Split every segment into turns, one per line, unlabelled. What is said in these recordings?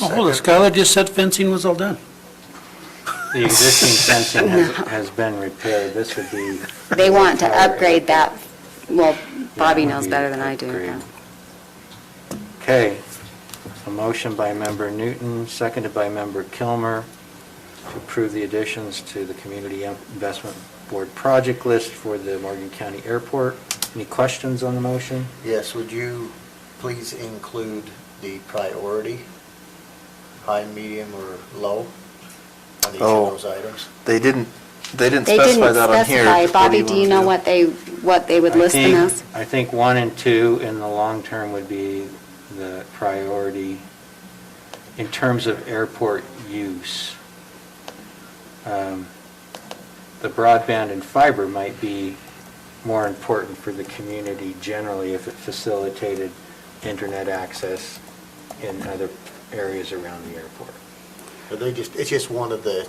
Oh, hold it, Skylar just said fencing was all done.
The existing fencing has, has been repaired, this would be.
They want to upgrade that, well, Bobby knows better than I do. yeah.
Okay, a motion by member Newton, seconded by member Kilmer, to approve the additions to the Community Investment Board project list for the Morgan County Airport. Any questions on the motion?
Yes, would you please include the priority, high, medium, or low on each
Oh.
of those items?
They didn't, they didn't
They didn't
specify that on here.
specify.
What
Bobby, do you
want
know
to
what they, what they would
I
list them
think-
as?
I think one and two in the long term would be the priority in terms of airport use. Um, The broadband and fiber might be more important for the community generally if it facilitated internet access in other areas around the airport.
Are they just, it's just one of the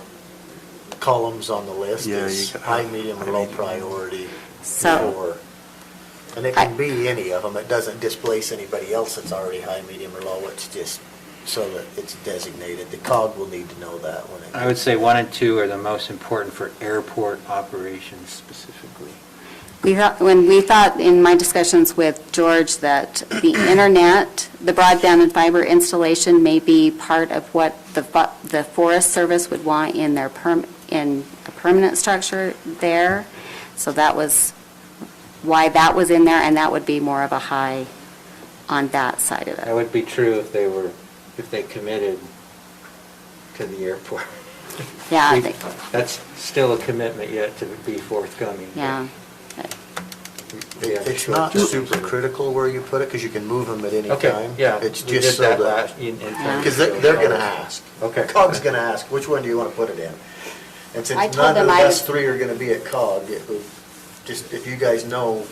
columns on the list
Yeah,
is
you got-
high, medium, or
high,
low
medium.
priority
So,
for, and it can be any of them. It doesn't displace anybody else that's already high, medium, or low. It's just so that it's designated. The COG will need to know that when it.
I would say one and two are the most important for airport operations specifically.
we thought, when we thought in my discussions with George that the internet, the broadband and fiber installation may be part of what the, fo- the Forest Service would want in their perm, in a permanent structure there. So that was why that was in there, and that would be more of a high on that side of it.
That would be true if they were, if they committed to the airport.
Yeah, I
We-
think-
That's still a commitment yet to be forthcoming. but
Yeah.
we have a
It's
short
not
term.
super critical where you put it, because you can move them at any time.
Okay, yeah.
It's
we did
just so
that
that,
last- in- in
Yeah.
terms
because they're,
of-
they're gonna ask.
Okay.
COG's gonna ask, which one do you want to put it in? And
I
since
told
none of
them I
us
would-
three are gonna be at COG, it would, just, if you guys know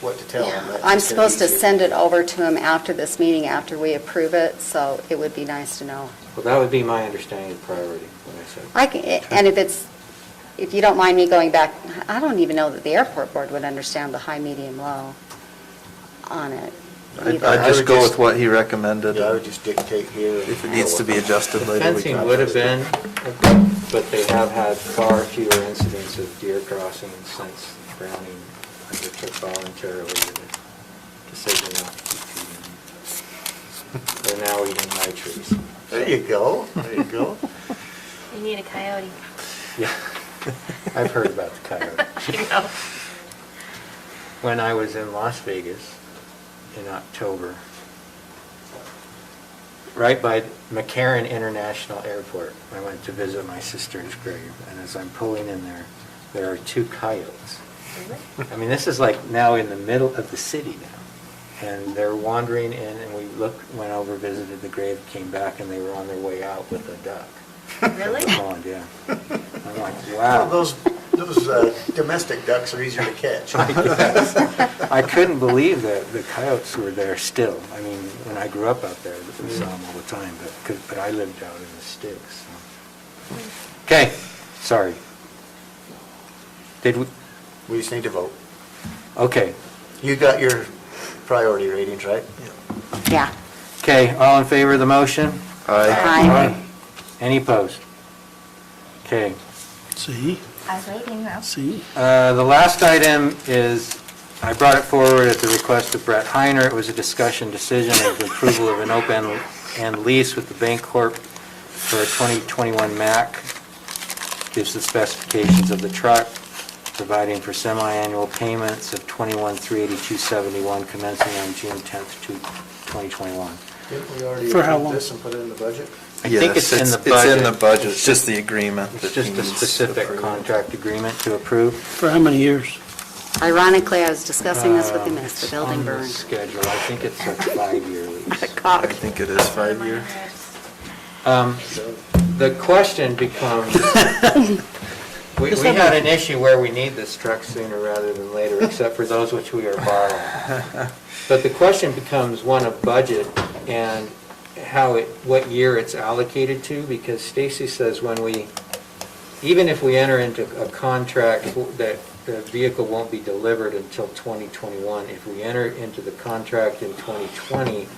what to tell them.
Yeah.
that's
I'm
just gonna be
supposed to
easier.
send it over to him after this meeting, after we approve it, so it would be nice to know.
Well, that would be my understanding of priority, what I said.
I can, and if it's, if you don't mind me going back, I don't even know that the airport board would understand the high, medium, low on it.
do.
either.
I'd I'd
I
just
would
go
just-
with what he recommended.
Yeah, I would just dictate here.
If it needs to be adjusted
The
later, we
fencing
can.
would have been, but they have had far fewer incidents of deer crossing since Browning undertook voluntarily the decision not to keep trees. They're now eating my trees.
There you go, there you go.
You need a coyote.
Yeah, I've heard about the coyote.
You know.
When I was in Las Vegas in October, right by McCarran International Airport, I went to visit my sister's grave, and as I'm pulling in there, there are two coyotes. I mean, this is like now in the middle of the city now. And they're wandering in, and we looked, went over, visited the grave, came back, and they were on their way out with a duck.
Really?
Pond, yeah. I'm like,
Well,
wow.
Those, those uh, domestic ducks are easier to catch.
I couldn't believe that the coyotes were there still. I mean, when I grew up out there, we saw them all the time, but, 'cause- but I lived out in the sticks. so. Okay, sorry. Did we,
We just need to vote.
okay,
You got your priority ratings, right?
Yeah.
okay, all in favor of the motion?
Aye.
Aye.
Any opposed? Okay.
See,
I was waiting, though.
see?
Uh, The last item is, I brought it forward at the request of Brett Heiner. It was a discussion decision of the approval of an open and lease with the Bank Corp for a 2021 Mack. Gives the specifications of the truck, providing for semi-annual payments of 21,382.71 commencing on June 10th, two- 2021.
Didn't we already
For how
approve
long?
this and put it in the budget?
I think it's in the
It's in the
budget.
budget, it's just the agreement.
It's
that
just a
needs
specific
approval.
contract agreement to approve.
For how many years?
Ironically, I was discussing this with him
Um,
as the
it's
building
Uh,
on the
burned.
schedule. I think it's a five-year lease.
The
I
cock.
think it is five years.
Um, The question becomes, we we had an issue where we need this truck sooner rather than later, except for those which we are borrowing. But the question becomes one of budget and how it, what year it's allocated to, because Stacy says when we, even if we enter into a contract that the vehicle won't be delivered until 2021, if we enter into the contract in 2020,